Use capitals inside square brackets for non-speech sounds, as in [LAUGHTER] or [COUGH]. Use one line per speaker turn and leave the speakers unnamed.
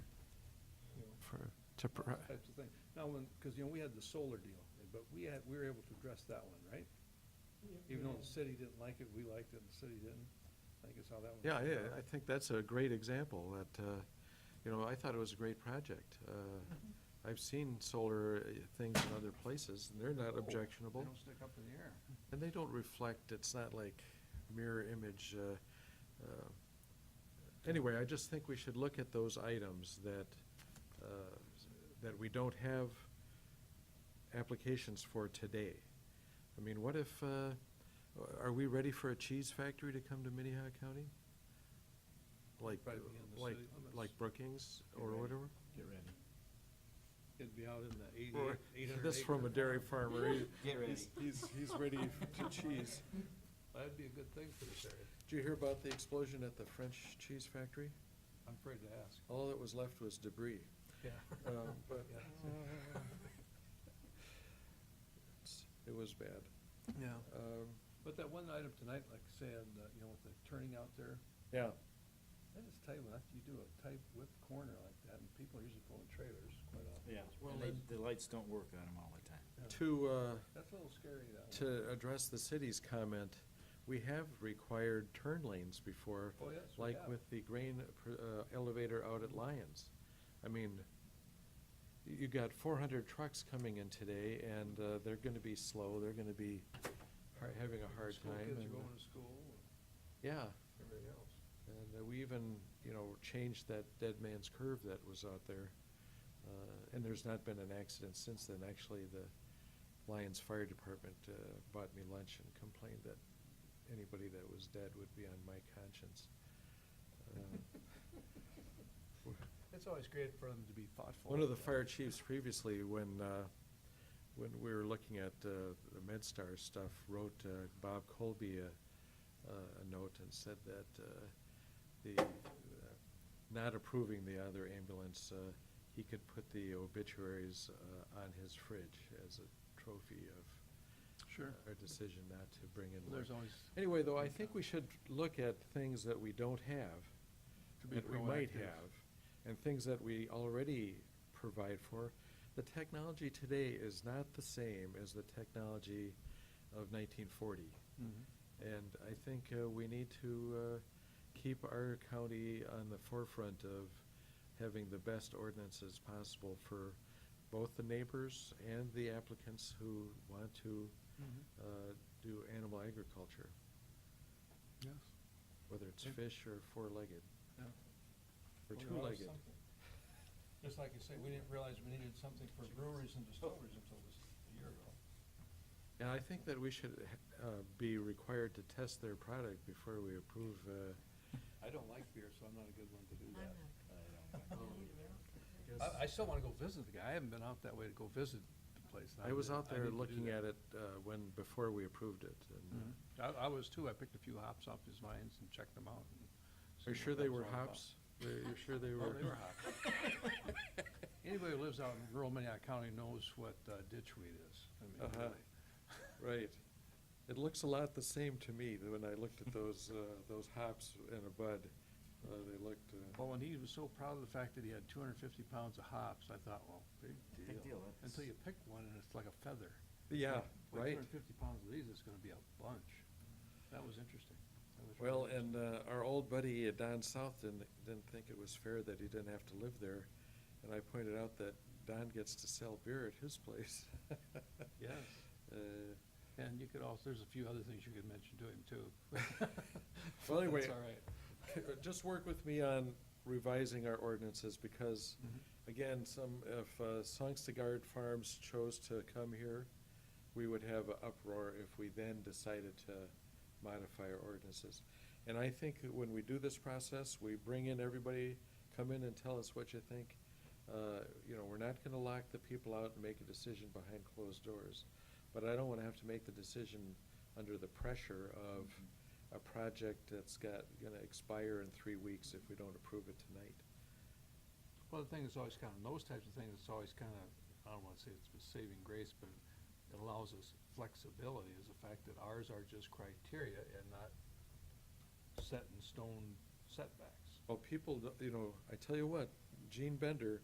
to, pro-
types of thing. Now, when, because, you know, we had the solar deal, but we had, we were able to address that one, right? Even though the city didn't like it, we liked it, and the city didn't. I think it's how that one.
yeah,
came
yeah,
out.
I think that's a great example that, uh, you know, I thought it was a great project. Uh, I've seen solar uh, things in other places and they're not
Oh,
objectionable.
They don't stick up in the air.
And they don't reflect, it's not like mirror image. uh, uh, Anyway, I just think we should look at those items that, uh, that we don't have applications for today. I mean, what if, uh, are we ready for a cheese factory to come to Minnehaha County? Like,
Probably be in the
like,
city limits.
like Brookings
Get
or
ready.
whatever?
Get ready.
It'd be out in the eighty,
Or-
eight hundred acre.
This from a dairy farmer. he-
Get ready.
he's- He's, he's ready to cheese.
That'd be a good thing for this area.
Did you hear about the explosion at the French cheese factory?
I'm afraid to ask.
All that was left was debris. [LAUGHS]
Yeah. [LAUGHS]
Um, But
Yeah.
it's- it was bad.
Yeah.
Um,
But that one item tonight, like I said, uh, you know, with the turning out there,
Yeah,
I just tell you, when you do a tight whip corner like that, and people are usually pulling trailers quite often.
Yeah,
Well,
and
then-
they, the lights don't work on them all the time.
Yeah.
to, uh,
That's a little scary, that one.
to address the city's comment, we have required turn lanes before.
Oh, yes, we
Like
have.
with the grain pr- uh, elevator out at Lyons. I mean, y- you got four hundred trucks coming in today, and uh, they're gonna be slow, they're gonna be har- having a hard time.
School kids are
and, uh,
going to school, and
Yeah,
everything else.
and uh, we even, you know, changed that dead man's curve that was out there. Uh, And there's not been an accident since then. Actually, the Lyons Fire Department uh, bought me lunch and complained that anybody that was dead would be on my conscience. Uh,
It's always great for them to be thoughtful.
One of the
Yeah.
fire chiefs previously, when, uh, when we were looking at uh, the MedStar stuff, wrote uh, Bob Colby a, a a note and said that uh, the, uh, not approving the other ambulance, uh, he could put the obituaries uh, on his fridge as a trophy of
Sure.
our decision not to bring in.
There's
more.
always.
Anyway, though, I think we should look at things that we don't have,
To be
that we might
proactive.
have, and things that we already provide for. The technology today is not the same as the technology of nineteen forty.
Mm-hmm.
And I think uh, we need to uh, keep our county on the forefront of having the best ordinances possible for both the neighbors and the applicants who want to
Mm-hmm.
uh, do animal agriculture,
Yes.
whether it's
Yeah.
fish or four-legged,
Yeah.
or
Well, there are
two-legged.
something. Just like you say, we didn't realize we needed something for breweries and distilleries until this, a year ago.
And I think that we should uh, be required to test their product before we approve, uh,
I don't like beer, so I'm not a good one to do
I'm
that.
not.
[LAUGHS]
I, I still wanna go visit the guy. I haven't been out that way to go visit the place. and
I was
need-
out
I
there
need to do
looking at
that.
it uh, when, before we approved it. and, uh,
Mhm. I, I was too. I picked a few hops off his vines and checked them out. and
Are you
see
sure
what that
they
was
were
all about.
hops? [LAUGHS] Are you sure they
Oh,
were?
they were hops. [LAUGHS] Anybody who lives out in rural Minnehaha County knows what uh, ditchweed is. I mean,
Uh-huh.
really.
Right. It looks a lot the same to me than when I looked [LAUGHS] at those, uh, those hops in a bud. Uh, They looked, uh,
Well, and he was so proud of the fact that he had two hundred and fifty pounds of hops, I thought, well, big deal.
Big deal, that's-
Until you pick one and it's like a feather.
yeah,
Two
right.
hundred and fifty pounds of these, it's gonna be a bunch. That was interesting. That was
Well,
really
and uh, our old buddy uh, Don South didn't, didn't think it was fair that he didn't have to live there. And I pointed out that Don gets to sell beer at his place.
interesting. [LAUGHS] Yes, [LAUGHS]
Uh,
and you could also, there's a few other things you could mention to him too.
Well, anyway,
[LAUGHS] That's all right.
c- uh, [LAUGHS] just work with me on revising our ordinances because,
Mm-hmm.
again, some, if uh, Sangstagard Farms chose to come here, we would have an uproar if we then decided to modify our ordinances. And I think that when we do this process, we bring in everybody, come in and tell us what you think. Uh, You know, we're not gonna lock the people out and make a decision behind closed doors. But I don't wanna have to make the decision under the pressure of a project that's got, gonna expire in three weeks if we don't approve it tonight.
Well, the thing is always kind of, those types of things, it's always kind of, I don't want to say it's a saving grace, but it allows us flexibility is the fact that ours are just criteria and not set in stone setbacks.
Well, people, don't- you know, I tell you what, Gene Bender